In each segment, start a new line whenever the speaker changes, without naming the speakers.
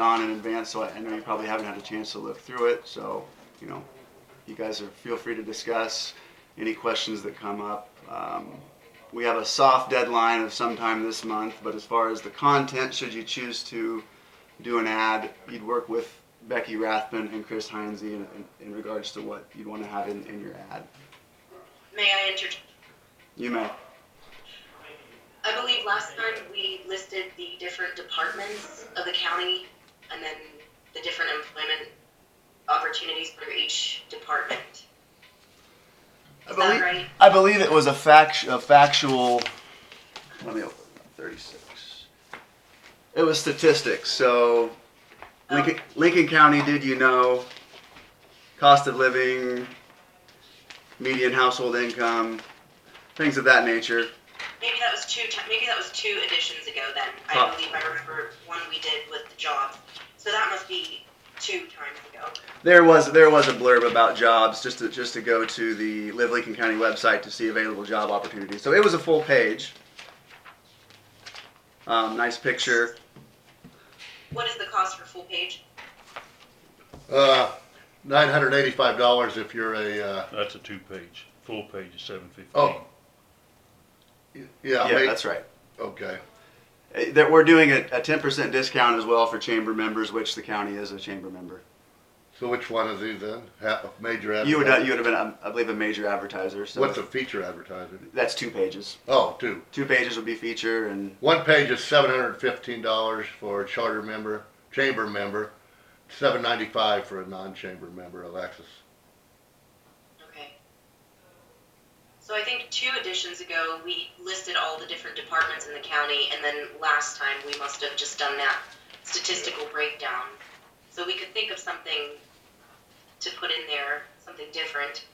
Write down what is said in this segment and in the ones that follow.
on in advance, so I I know you probably haven't had a chance to look through it, so, you know, you guys are, feel free to discuss any questions that come up. Um, We have a soft deadline of sometime this month, but as far as the content, should you choose to do an ad, you'd work with Becky Rathman and Chris Heinze in, in- in regards to what you'd want to have in, in your ad.
May I enter?
You may.
I believe last time we listed the different departments of the county and then the different employment opportunities for each department.
I
Is
believe,
that right?
I believe it was a, fact, a factual. Let me open up 36. It was statistics. So
Oh.
Lincoln, Lincoln County, did you know? Cost of living, median household income, things of that nature.
Maybe that was two, ti- maybe that was two editions ago then.
Huh.
I believe I remember one we did with the jobs. So that must be two times ago.
There was there was a blurb about jobs just to just to go to the Live Lincoln County website to see available job opportunities. So it was a full page. Um, nice picture.
What is the cost for full page?
Uh, nine hundred eighty-five dollars if you're a, uh,
That's a two-page, full page is seven fifteen.
Oh. y- yeah,
yeah,
ma-
that's right.
okay.
Uh, That we're doing a, a 10% discount as well for chamber members, which the county is a chamber member.
So which one is he then? Ha- major advertiser?
You would you would have been um, I believe a major advertiser. So
What's a feature advertiser?
that's two pages.
Oh, two.
Two pages would be feature and
One page is seven hundred fifteen dollars for a charter member, chamber member, seven ninety-five for a non-chamber member, Alexis.
Okay. So I think two editions ago, we listed all the different departments in the county, and then last time, we must have just done that statistical breakdown. So we could think of something to put in there, something different.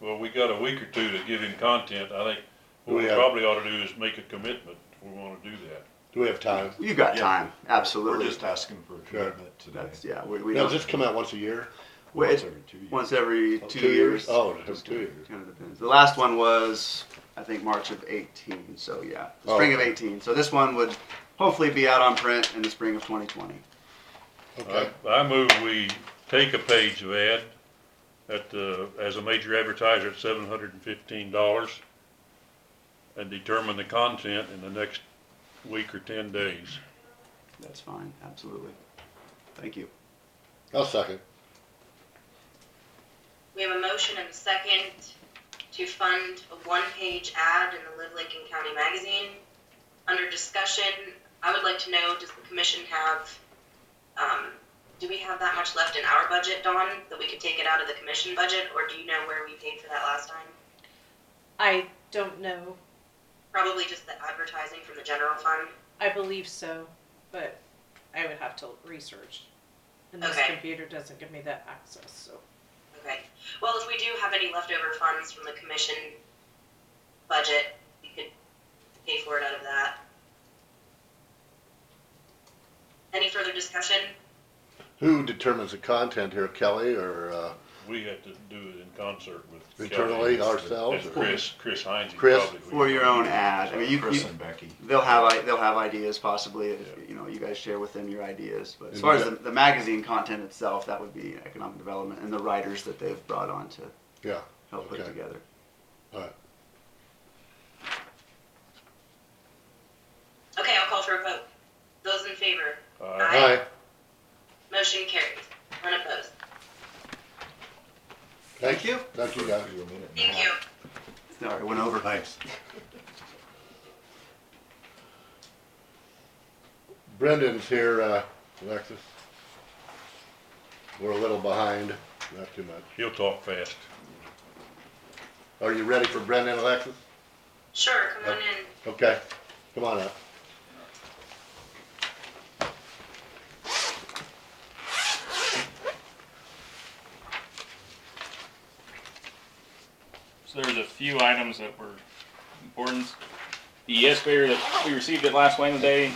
Well, we got a week or two to give him content, I think what
We
we
have-
probably ought to do is make a commitment, if we wanna do that.
Do we have time?
you got
Yeah.
time. Absolutely.
We're just asking for a
Sure.
commitment today.
that's yeah. We, we
Does
don't-
this come out once a year?
Well,
Once
it-
every two years.
once every
Oh,
two
two years?
years.
Oh, it has
Just
two years.
Kind of depends. The last one was, I think, March of 18. So yeah, the
Oh,
spring of
okay.
18. So this one would hopefully be out on print in the spring of 2020.
Okay.
I, I move we take a page of ad at, uh, as a major advertiser at seven hundred and fifteen dollars and determine the content in the next week or ten days.
That's fine. Absolutely. Thank you.
I'll second.
We have a motion and a second to fund a one-page ad in the Live Lincoln County Magazine. Under discussion, I would like to know, does the commission have, um, do we have that much left in our budget, Dawn, that we could take it out of the commission budget, or do you know where we paid for that last time?
I don't know.
Probably just the advertising from the general fund.
I believe so, but I would have to research. And this
Okay.
computer doesn't give me that access, so.
Okay. Well, if we do have any leftover funds from the commission budget, we could pay for it out of that. Any further discussion?
Who determines the content here, Kelly or, uh,
We had to do it in concert with.
Internally,
Kelly
ourselves,
And
or-
Chris, Chris Heinz.
Chris?
For your own ad. I mean, you,
Chris
you-
and Becky.
they'll have i- they'll have ideas possibly. If, you know, you guys share with them your ideas. But as
And
far as
that-
the, the magazine content itself, that would be economic development and the writers that they've brought on to
yeah,
help put
Okay.
together.
Okay, I'll call for a vote. Those in favor,
Uh,
Aye.
motion carries, unopposed.
Thank you. Thank you, guys.
For your minute and a
Thank
half.
you.
All right, went over.
Thanks.
Brendan's here, uh, Alexis. We're a little behind, not too much.
he'll talk fast.
Are you ready for Brendan, Alexis?
Sure, come on in.
Okay, come on up.
So there's a few items that were important. The excavator that we received it last Wednesday.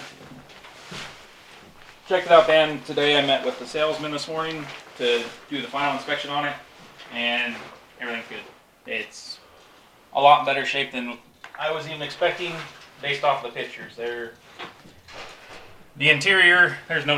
Checked it out then. Today I met with the salesman this morning to do the final inspection on it and everything's good. It's a lot better shape than I was even expecting based off the pictures. They're the interior, there's no